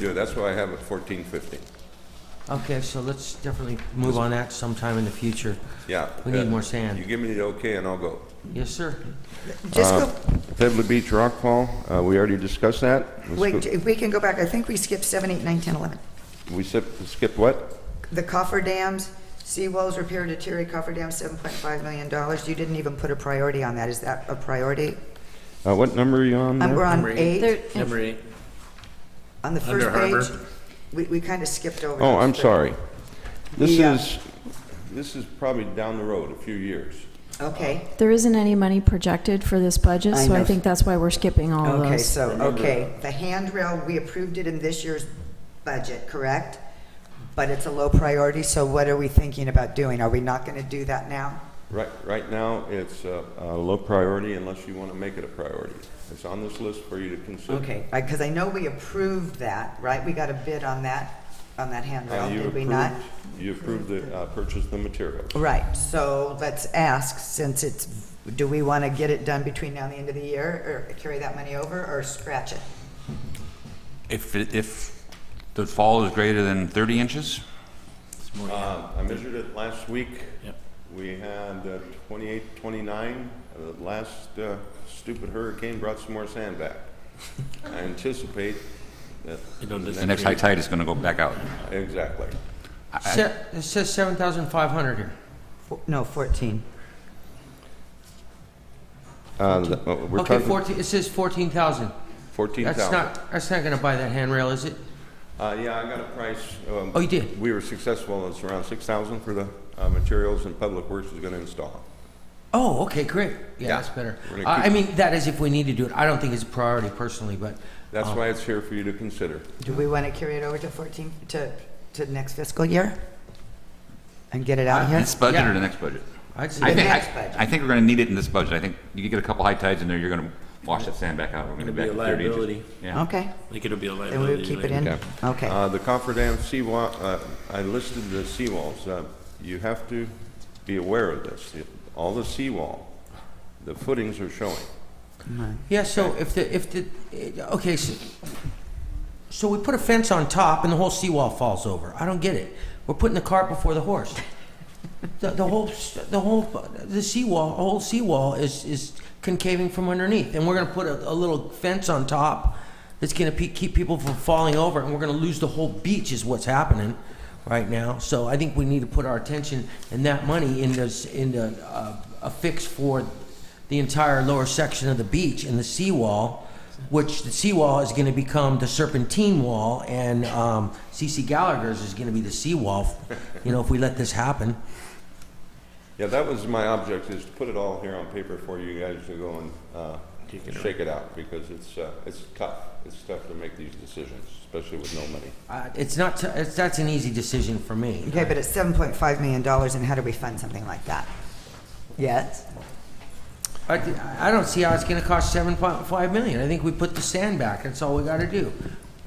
Yeah, that's why I have it fourteen fifteen. Okay, so let's definitely move on that sometime in the future. Yeah. We need uh, more sand. You give me the okay and I'll go. Yes, sir. Just Uh, go, Pebble Beach Rockfall, uh, we already discussed that. Let's wait, go- if we can go back, I think we skipped seven, eight, nine, ten, eleven. We skip- skipped what? The coffer dams, seawalls repair deteriorate coffer dams, seven point five million dollars. You didn't even put a priority on that. Is that a priority? Uh, what number are you on Um, there? We're on Number eight. eight, Number eight. on the Under first harbor. page. We, we kind of skipped over. Oh, those, I'm but- sorry. This Yeah. is, this is probably down the road, a few years. Okay, There isn't any money projected for this budget, I so I know. think that's why we're skipping all of okay, those. so, okay. The handrail, we approved it in this year's budget, correct? But it's a low priority, so what are we thinking about doing? Are we not going to do that now? Right, right now, it's uh, a low priority unless you want to make it a priority. It's on this list for you to consider. Okay, because I know we approved that, right? We got a bid on that, on that Uh, handrail, you did we approved- not? You approved the uh, purchase of the materials. Right, so let's ask, since it's, do we want to get it done between now and the end of the year, or carry that money over, or scratch it? If, it- if the fall is greater than 30 inches, It's more- Uh, I measured it last week. Yep. We had uh, 28, 29. Uh, The last uh, stupid hurricane brought some more sand back. I anticipate that. don't the the next high tide is going to go back out. Exactly. Se- It says 7,500 here. Four- No, 14. Uh, the- uh, We're Okay, talking 14, it says 14,000. That's 14,000. not, that's not gonna buy that handrail, is it? Uh, Yeah, I got a price. um, Oh, you did? We were successful. It's around 6,000 for the uh, materials and Public Works is going to install. Oh, okay, great. Yeah, Yeah. that's better. We're gonna I I keep- mean, that is if we need to do it. I don't think it's a priority personally, but That's why it's here for you to consider. Do we want to carry it over to 14, to, to next fiscal year? And get it out here? This budget Yeah. or the next budget? I'd say. I think, next budget. I- I think we're going to need it in this budget. I think you get a couple high tides in there, you're going to wash that sand back out. We're going to It'll be back be to a 30 liability. inches. Yeah. Okay, I think it'll be a then we'll liability. keep it later. in? Okay. Okay, Uh, The Cofferdam seawall, uh, I listed the seawalls. Uh, You have to be aware of this. It- All the seawall, the footings are showing. Yeah, so if the, if the, eh, okay, so, so we put a fence on top and the whole seawall falls over. I don't get it. We're putting the cart before the horse. The, the whole, s- the whole, the seawall, the whole seawall is, is concaving from underneath. And we're gonna put a, a little fence on top that's gonna pe- keep people from falling over and we're gonna lose the whole beach is what's happening right now. So I think we need to put our attention and that money into, s- into, uh, a fix for the entire lower section of the beach and the seawall, which the seawall is going to become the serpentine wall, and um, CC Gallagher's is going to be the seawall, you know, if we let this happen. Yeah, that was my object, is to put it all here on paper for you guys to go and uh, Take it shake it out, because it's, uh, it's tough. It's tough to make these decisions, especially with no money. Uh, it's not, t- it's, that's an easy decision for me. okay, but it's 7.5 million dollars, and how do we fund something like that? Yes? I, th- I don't see how it's going to cost 7.5 million. I think we put the sand back. That's all we got to do.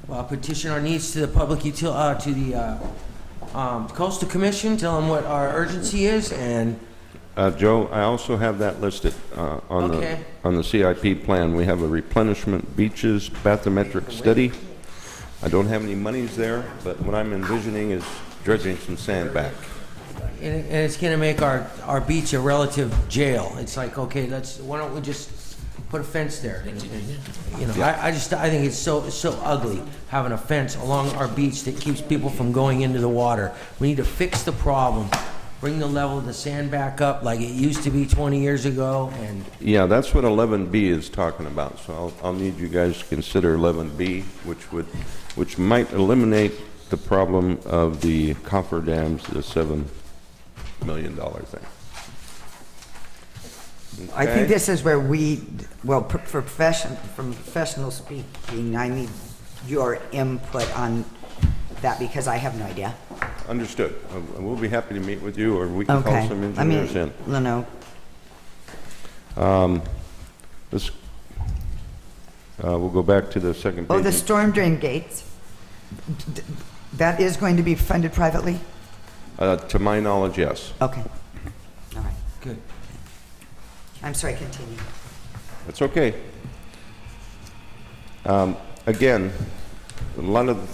Uh, petition our needs to the public util, uh, to the uh, um, coastal commission. Tell them what our urgency is, and Uh, Joe, I also have that listed uh, on the, Okay. on the CIP plan. We have a replenishment beaches bathymetric study. I don't have any monies there, but what I'm envisioning is dredging some sand back. And, it- and it's going to make our, our beach a relative jail. It's like, okay, let's, why don't we just put a fence there? You know, I, I just, I think it's so, so ugly, having a fence along our beach that keeps people from going into the water. We need to fix the problem, bring the level of the sand back up like it used to be 20 years ago, and Yeah, that's what 11B is talking about, so I'll, I'll need you guys to consider 11B, which would, which might eliminate the problem of the coffer dams, the $7 million thing. I Okay? think this is where we, well, pro- for profession, from professional speaking, I need your input on that because I have no idea. Understood. Uh, We'll be happy to meet with you, or we can Okay. call some I mean, engineers in. No, no. Let's, uh, we'll go back to the second Oh, the page. storm drain gates. D- That is going to be funded privately? Uh, To my knowledge, yes. Okay. All right. good. I'm sorry, continue. That's okay. Um, Again, a lot of the